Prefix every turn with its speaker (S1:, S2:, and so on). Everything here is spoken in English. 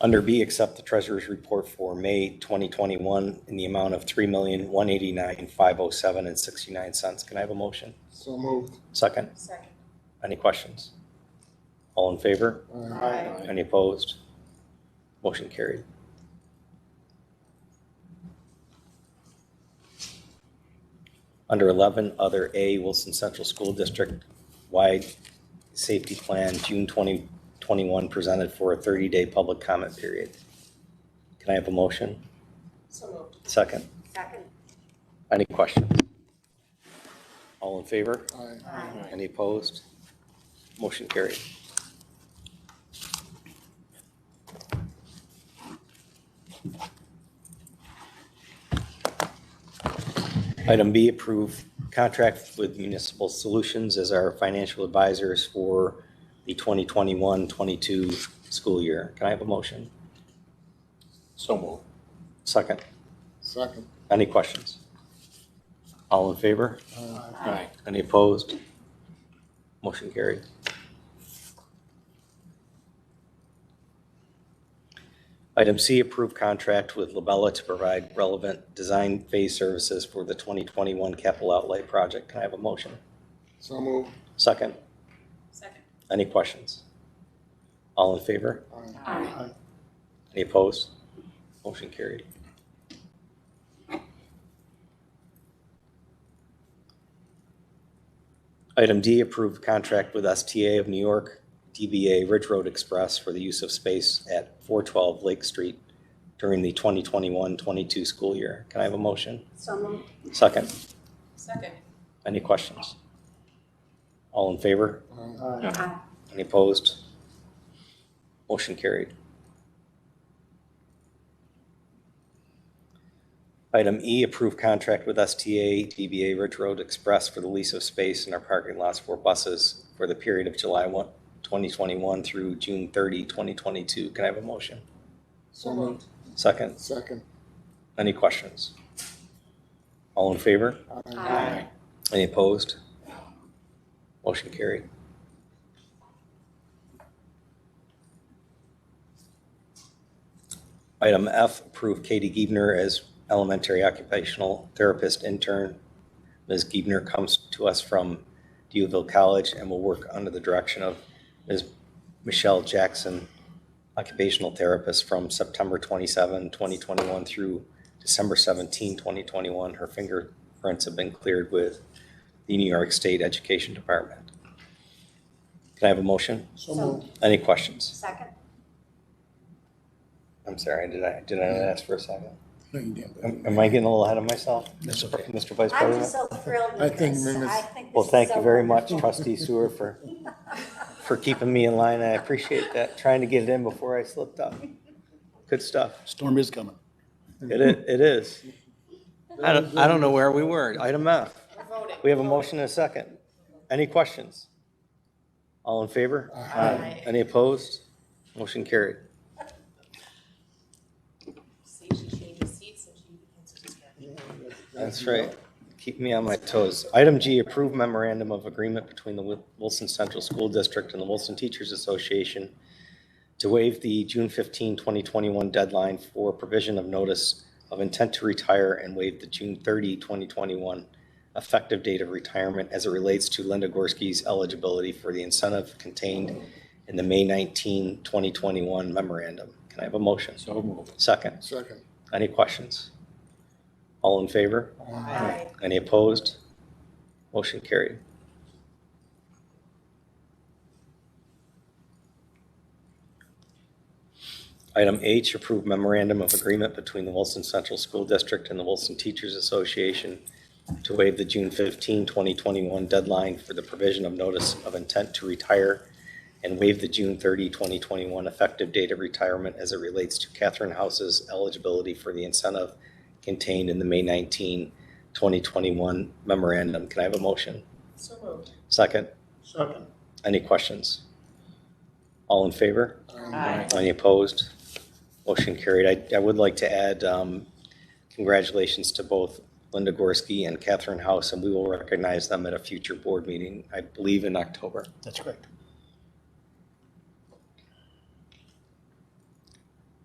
S1: Under B, accept the treasurer's report for May 2021 in the amount of $3,189,507 and 69 cents. Can I have a motion?
S2: So moved.
S1: Second,
S3: Second.
S1: any questions? All in favor?
S3: Aye.
S1: Any opposed? Motion carried. Under 11, Other A, Wilson Central School District wide safety plan, June 2021, presented for a 30-day public comment period. Can I have a motion?
S3: So moved.
S1: Second.
S3: Second.
S1: Any questions? All in favor?
S2: Aye.
S3: Aye.
S1: Any opposed? Motion carried. Item B, approve contract with Municipal Solutions as our financial advisors for the 2021-22 school year. Can I have a motion?
S4: So moved.
S1: Second.
S2: Second.
S1: Any questions? All in favor?
S2: Aye.
S4: Aye.
S1: Any opposed? Motion carried. Item C, approve contract with Labella to provide relevant design phase services for the 2021 capital outlay project. Can I have a motion?
S2: So moved.
S1: Second,
S3: Second.
S1: any questions? All in favor?
S2: Aye.
S3: Aye.
S1: Any opposed? Motion carried. Item D, approve contract with STA of New York, DBA Ridge Road Express for the use of space at 412 Lake Street during the 2021-22 school year. Can I have a motion?
S3: So moved.
S1: Second,
S3: Second.
S1: any questions? All in favor?
S2: Aye.
S3: Aye.
S1: Any opposed? Motion carried. Item E, approve contract with STA DBA Ridge Road Express for the lease of space in our parking lots for buses for the period of July 1, 2021 through June 30, 2022. Can I have a motion?
S2: So moved.
S1: Second,
S2: Second.
S1: any questions? All in favor?
S2: Aye.
S3: Aye.
S1: Any opposed? Motion carried. Item F, approve Katie Giebner as elementary occupational therapist intern. Ms. Giebner comes to us from Deauville College and will work under the direction of Ms. Michelle Jackson, occupational therapist from September 27, 2021 through December 17, 2021. Her fingerprints have been cleared with the New York State Education Department. Can I have a motion?
S2: So moved.
S1: Any questions?
S3: Second.
S1: I'm sorry, did I, did I not ask for a second?
S2: No, you didn't.
S1: Am am I getting a little ahead of myself?
S2: That's okay.
S1: Mr. Vice
S3: I'm
S1: President?
S3: just so thrilled
S2: I
S3: with
S2: think
S3: this.
S2: Mimis-
S3: I think this
S1: Well,
S3: is
S1: thank
S3: so
S1: you very much,
S3: wonderful.
S1: trustee Sewer, for, for keeping me in line. I appreciate that, trying to get it in before I slipped up. Good stuff.
S4: Storm is coming.
S1: It is, it is. I don't, I don't know where we were. Item F.
S3: We're voting.
S1: We have a motion and a second. Any questions? All in favor?
S3: Aye.
S1: Any opposed? Motion carried.
S3: See, she changes seats and she begins to discuss.
S1: That's right. Keep me on my toes. Item G, approve memorandum of agreement between the Wil- Wilson Central School District and the Wilson Teachers Association to waive the June 15, 2021 deadline for provision of notice of intent to retire and waive the June 30, 2021 effective date of retirement as it relates to Linda Gorski's eligibility for the incentive contained in the May 19, 2021 memorandum. Can I have a motion?
S4: So moved.
S1: Second.
S2: Second.
S1: Any questions? All in favor?
S3: Aye.
S1: Any opposed? Motion carried. Item H, approve memorandum of agreement between the Wilson Central School District and the Wilson Teachers Association to waive the June 15, 2021 deadline for the provision of notice of intent to retire and waive the June 30, 2021 effective date of retirement as it relates to Catherine House's eligibility for the incentive contained in the May 19, 2021 memorandum. Can I have a motion?
S3: So moved.
S1: Second,
S2: Second.
S1: any questions? All in favor?
S3: Aye.
S1: Any opposed? Motion carried. I, I would like to add um, congratulations to both Linda Gorski and Catherine House, and we will recognize them at a future board meeting, I believe in October.
S4: That's correct.